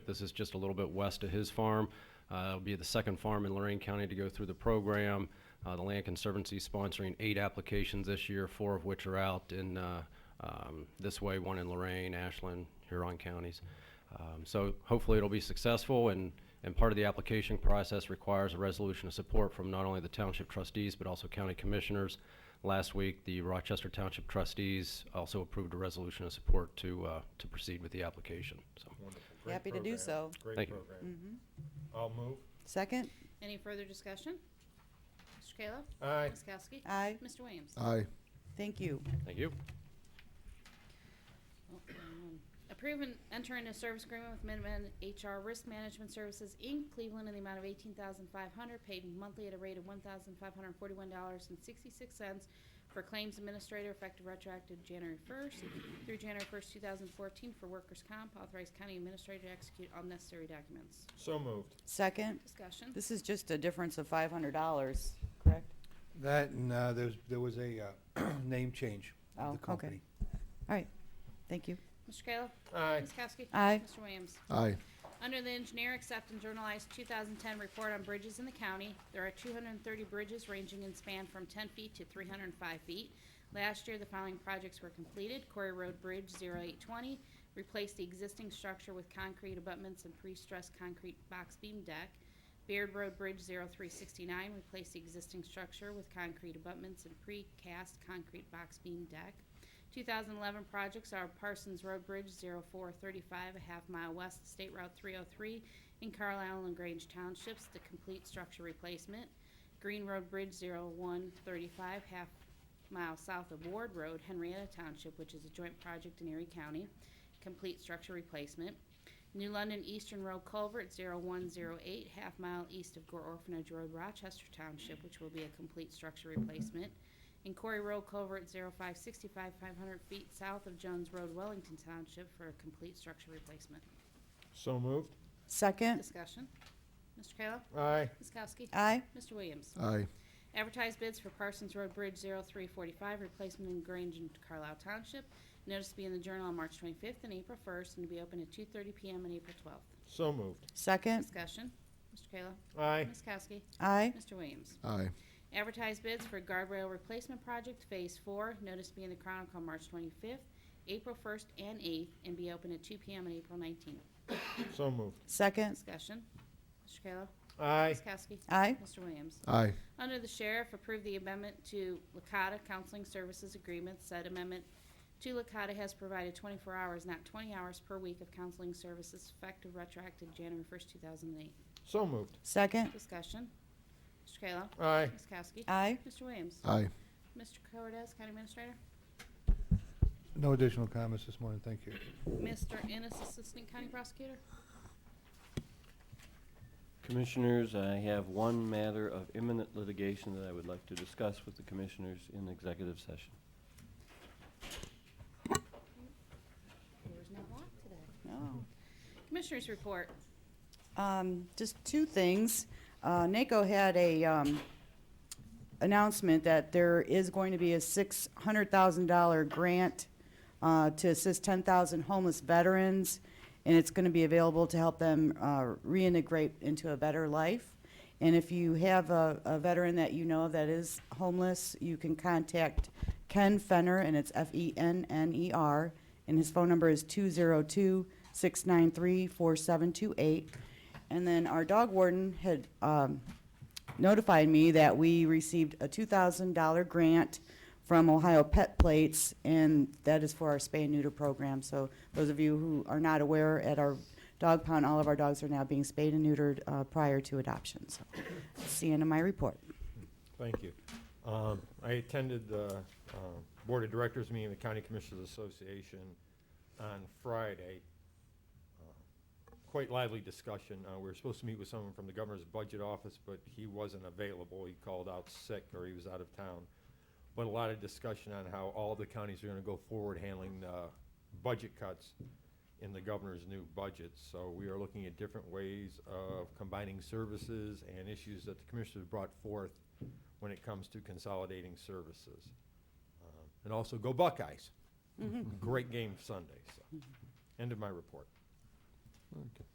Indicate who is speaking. Speaker 1: This is just a little bit west of his farm. Uh, it'll be the second farm in Lorraine County to go through the program. Uh, the Land Conservancy is sponsoring eight applications this year, four of which are out in uh, um, this way, one in Lorraine, Ashland, Huron counties. Um, so hopefully it'll be successful and, and part of the application process requires a resolution of support from not only the township trustees, but also county commissioners. Last week, the Rochester Township trustees also approved a resolution of support to, uh, to proceed with the application, so.
Speaker 2: Wonderful. Great
Speaker 3: Happy to do
Speaker 2: program.
Speaker 3: so. Mm-hmm.
Speaker 2: Great
Speaker 1: Thank you.
Speaker 2: program. I'll move.
Speaker 3: Second?
Speaker 4: Any further discussion? Mr. Kayla?
Speaker 2: Aye.
Speaker 4: Ms. Kowski?
Speaker 3: Aye.
Speaker 4: Mr. Williams?
Speaker 5: aye,
Speaker 3: Thank you.
Speaker 1: Thank you.
Speaker 4: um, Approve and enter into service agreement with Minuteman HR Risk Management Services, Inc., Cleveland, in the amount of eighteen thousand five hundred, paid monthly at a rate of one thousand five hundred forty-one dollars and sixty-six cents for claims administrator effective retroactive January first through January first, two thousand fourteen for workers' comp. Authorized county administrator to execute all necessary documents.
Speaker 2: So moved.
Speaker 3: Second?
Speaker 4: Discussion.
Speaker 3: This is just a difference of five hundred dollars, correct?
Speaker 6: That and uh, there's, there was a uh, name change
Speaker 3: Oh,
Speaker 6: of the
Speaker 3: okay.
Speaker 6: company.
Speaker 3: All right, thank you.
Speaker 4: Mr. Kayla?
Speaker 2: Aye.
Speaker 4: Ms. Kowski?
Speaker 3: Aye.
Speaker 4: Mr. Williams?
Speaker 5: aye,
Speaker 4: Under the engineer, accept and journalize 2010 report on bridges in the county. There are 230 bridges ranging in span from 10 feet to 305 feet. Last year, the following projects were completed. Corey Road Bridge 0820 replaced the existing structure with concrete abutments and pre-stressed concrete box beam deck. Beard Road Bridge 0369 replaced the existing structure with concrete abutments and precast concrete box beam deck. 2011 projects are Parsons Road Bridge 0435, a half mile west of State Route 303 in Carlisle and Grange Townships, the complete structure replacement. Green Road Bridge 0135, half mile south of Ward Road, Henrietta Township, which is a joint project in Erie County, complete structure replacement. New London Eastern Road Culvert 0108, half mile east of Gore Orphanage Road, Rochester Township, which will be a complete structure replacement. And Quarry Road Culvert 0565, 500 feet south of Jones Road, Wellington Township, for a complete structure replacement.
Speaker 2: So moved.
Speaker 3: Second?
Speaker 4: Discussion. Mr. Kayla?
Speaker 2: Aye.
Speaker 4: Ms. Kowski?
Speaker 3: Aye.
Speaker 4: Mr. Williams?
Speaker 5: aye,
Speaker 4: Advertised bids for Parsons Road Bridge 0345, replacement in Grange and Carlisle Township. Notice to be in the Journal on March 25th and April 1st, and to be open at 2:30 PM on April 12th.
Speaker 2: So moved.
Speaker 3: Second?
Speaker 4: Discussion. Mr. Kayla?
Speaker 2: Aye.
Speaker 4: Ms. Kowski?
Speaker 3: Uh. Aye.
Speaker 4: Mr. Williams?
Speaker 5: aye,
Speaker 4: Advertised bids for guardrail replacement project Phase Four, notice to be in the Chronicle on March twenty-fifth, April first, and eighth, and be open at two PM and April nineteenth.
Speaker 2: So moved.
Speaker 3: Second?
Speaker 4: Discussion. Mr. Kayla?
Speaker 2: Aye.
Speaker 4: Ms. Kowski?
Speaker 3: Aye.
Speaker 4: Mr. Williams?
Speaker 5: aye,
Speaker 4: Under the sheriff, approve the amendment to Lakota Counseling Services Agreement. Said amendment to Lakota has provided twenty-four hours, not twenty hours per week of counseling services effective retroactive January first, two thousand and eight.
Speaker 2: So moved.
Speaker 3: Second?
Speaker 4: Discussion. Mr. Kayla?
Speaker 2: Aye.
Speaker 4: Ms. Kowski?
Speaker 3: Aye.
Speaker 4: Mr. Williams?
Speaker 5: aye.
Speaker 4: Mr. Cordez, County Administrator?
Speaker 6: No additional comments this morning, thank you.
Speaker 4: Mr. Ennis, Assistant County Prosecutor.
Speaker 7: Commissioners, I have one matter of imminent litigation that I would like to discuss with the commissioners in executive session.
Speaker 4: There's no lock today.
Speaker 3: No.
Speaker 4: Commissioners report.
Speaker 3: Um, just two things. Uh, NACO had a, um, announcement that there is going to be a six hundred thousand dollar grant, uh, to assist ten thousand homeless veterans, and it's gonna be available to help them, uh, reintegrate into a better life. And if you have a, a veteran that you know that is homeless, you can contact Ken Fenner, and it's E F-E-N-N-E-R, and his phone number is two zero two six nine three four seven two eight. And then our dog warden had, um, notified me that we received a $2,000 grant from Ohio Pet Plates, and that is for our spay and neuter program. So those of you who are not aware, at our dog pound, all of our dogs are now being spayed and neutered uh, prior to adoption. So that's the end of my report.
Speaker 2: Thank you. Um, I attended the uh, Board of Directors meeting of the County Commissioners Association on Friday. Uh, Quite lively discussion. Uh, We were supposed to meet with someone from the Governor's Budget Office, but he wasn't available. He called out sick or he was out of town. But a lot of discussion on how all the counties are going to go forward handling the budget cuts in the governor's new budget. So we are looking at different ways of combining services and issues that the commissioners brought forth when it comes to consolidating services. Um, And also, go Buckeyes. Great game Sunday, so. End of my report.